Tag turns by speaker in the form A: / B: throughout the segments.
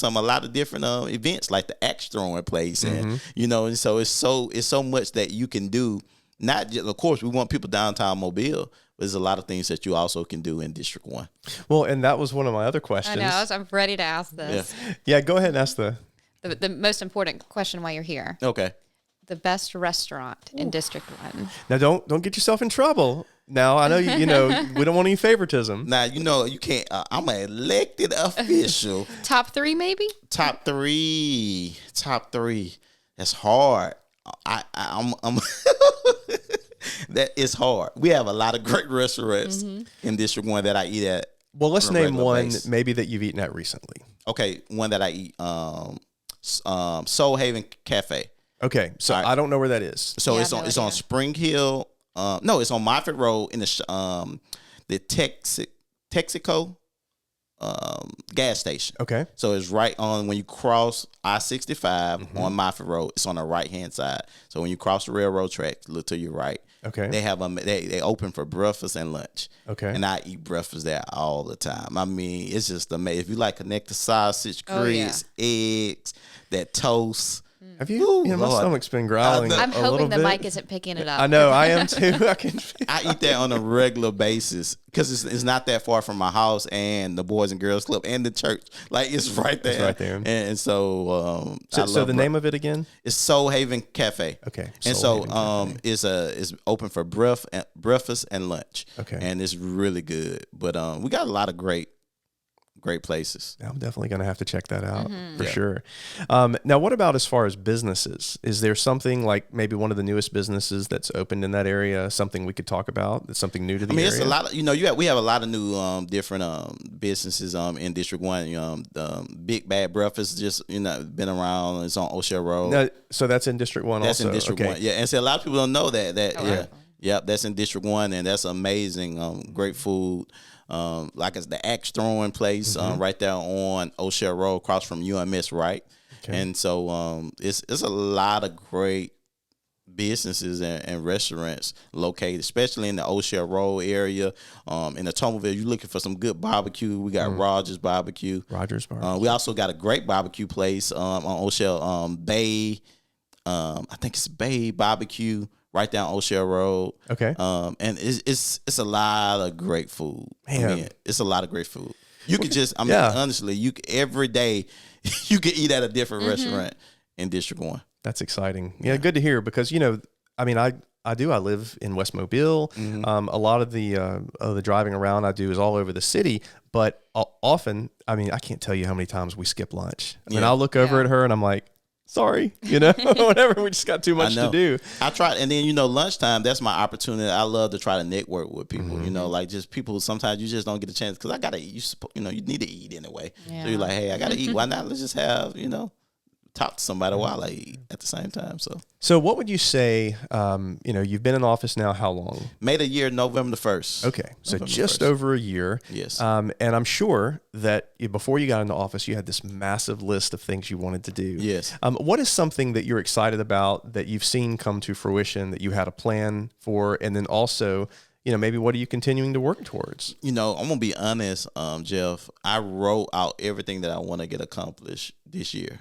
A: some a lot of different um, events like the axe throwing place and you know and so it's so it's so much that you can do not just of course we want people downtown mobile but there's a lot of things that you also can do in district one
B: Well, and that was one of my other
C: I
B: questions.
C: know. I was, I'm ready to ask this.
B: Yeah, go ahead and ask the.
C: The, the most important question while you're here:
A: okay
C: the best restaurant in District One.
B: Now, don't don't get yourself in trouble. Now, I know you, you know we don't want any favoritism.
A: now you know you can't uh, i'm an elected official
C: Top three, maybe.
A: top three top three that's hard i, I i'm, I'm that is hard we have a lot of great restaurants in district one that i eat at
B: Well, let's
A: On a
B: name
A: regular
B: one
A: basis.
B: maybe that you've eaten at recently.
A: okay one that i eat um s- um soul haven cafe
B: Okay, so
A: All right.
B: I don't know where that is.
A: so
C: Yeah,
A: it's
C: I
A: on
C: know
A: it's
C: it,
A: on
C: yeah.
A: spring hill um no it's on moffett road in the sh- um the texas texaco um gas station
B: Okay,
A: So it's right on when you cross I 65
B: Mm-hmm.
A: on Moffett Road. It's on the right hand side. So when you cross the railroad track, look to your right.
B: okay,
A: They have um they they open for breakfast and lunch.
B: okay.
A: And I eat breakfast there all the time. I mean, it's just amazing. If you like connected sausage,
C: Oh, yeah.
A: grits, eggs, that toast.
B: Have you? you know, my
A: Lord. Uh,
B: stomic's been growling.
A: know.
B: a
C: I'm
B: little
C: hoping the
B: bit.
C: mic isn't picking it up.
B: I know I am too. I can.
A: I eat that on a regular basis because it's, it's not that far from my house and the Boys and Girls Club and the church. Like it's right there.
B: right there.
A: And, and so, um, I
B: So, so
A: love
B: the
A: bre-
B: name of it again?
A: It's Soul Haven Cafe.
B: Okay,
A: And
B: Soul
A: so um it's a it's open for breath and breakfast and lunch.
B: Okay.
A: And it's really good. But um we got a lot of great great places.
B: I'm definitely going to have to check that out for sure. Um, now, what about as far as businesses? Is there something like maybe one of the newest businesses that's opened in that area? Something we could talk about? That's something new to the
A: I mean,
B: area.
A: it's a lot of you know. You have, we have a lot of new um, different um, businesses um, in District One. Um, the, um, Big Bad Breakfast just you know been around. It's on O'Shea Road.
B: No, so that's in District One.
A: that's
B: also.
A: in District
B: okay.
A: One. Yeah, and so a lot of people don't know that. That
C: Oh,
A: yeah,
C: wow.
A: yep. That's in District One, and that's amazing. Um, great food. Um, like it's the axe throwing place um,
B: Mm-hmm.
A: right there on O'Shea Road, across from UMS, right. And so um, it's it's a lot of great businesses and, and restaurants located, especially in the O'Shea Road area, um, in the Tomoville. You're looking for some good barbecue. We got
B: Mm-hmm.
A: Rogers Barbecue.
B: Rogers Bar.
A: Uh, we also got a great barbecue place um, on O'Shea um, Bay. Um, I think it's Bay Barbecue right down O'Shea Road.
B: okay.
A: Um, and it's, it's it's a lot of great food. I
B: Man.
A: mean, it's a lot of great food. You could just, I mean,
B: Yeah.
A: honestly, you c- every day you could eat at a different restaurant in District One.
B: That's exciting. Yeah, good to hear because you know, I mean, I I do. I live in West Mobile.
A: Mm-hmm.
B: Um, a lot of the uh, of the driving around I do is all over the city, but o- often, I mean, I can't tell you how many times we skip lunch. I mean,
A: Yeah.
B: I'll look over
C: Yeah.
B: at her and I'm like, sorry, you know, whatever. We just got too much to
A: know.
B: do.
A: I try, and then you know, lunchtime. That's my opportunity. I love to try to network with people. You know, like just people. Sometimes you just don't get a chance because I gotta. eat. You suppo- you know, you need to eat anyway. So
C: Yeah.
A: you're like, hey, I gotta eat. Why not? Let's just have you know, talk to somebody while I eat at the same time. So
B: So, what would you say? Um, you know, you've been in office now how long?
A: made a year November the first.
B: Okay, so
A: November
B: just
A: 1st.
B: over a year.
A: Yes.
B: Um, and I'm sure that you, before you got into office, you had this massive list of things you wanted to do.
A: Yes.
B: Um, what is something that you're excited about that you've seen come to fruition that you had a plan for, and then also, you know, maybe what are you continuing to work towards?
A: you know, I'm gonna be honest, um, Jeff. I wrote out everything that I want to get accomplished this year,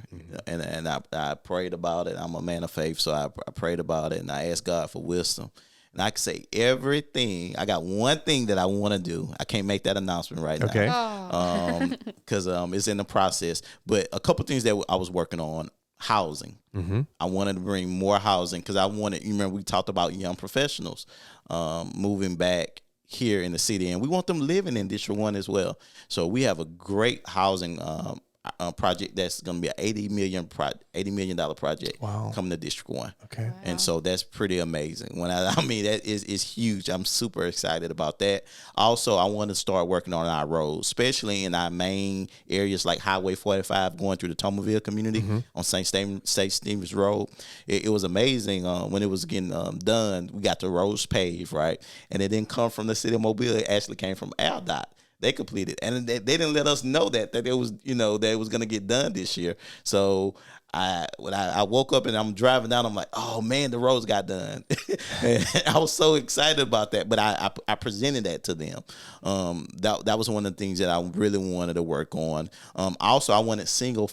A: and and I, I prayed about it. I'm a man of faith, so I, I prayed about it, and I asked God for wisdom. And I can say everything. I got one thing that I want to do. I can't make that announcement right now
B: Okay.
C: Oh,
A: um because um it's in the process but a couple things that i was working on housing mm-hmm. i wanted to bring more housing because i wanted you remember we talked about young professionals um moving back here in the city and we want them living in district one as well so we have a great housing um uh, project that's going to be an 80 million pro- 80 million dollar project
B: Wow.
A: coming to district one
B: Okay.
A: and so that's pretty amazing. When I, I mean that is is huge. I'm super excited about that. Also, I want to start working on our roads, especially in our main areas like Highway 45 going through the Tomerville community on St. Stam- St. Stevens Road. It, it was amazing uh, when it was getting um, done. We got the roads paved, right? And it didn't come from the city of Mobile. It actually came from AlDOT they completed and they, they didn't let us know that that it was you know that it was going to get done this year so i when I, I woke up and i'm driving down i'm like oh man the roads got done And i was so excited about that but i i, I presented that to them um that, that was one of the things that i really wanted to work on um also i wanted single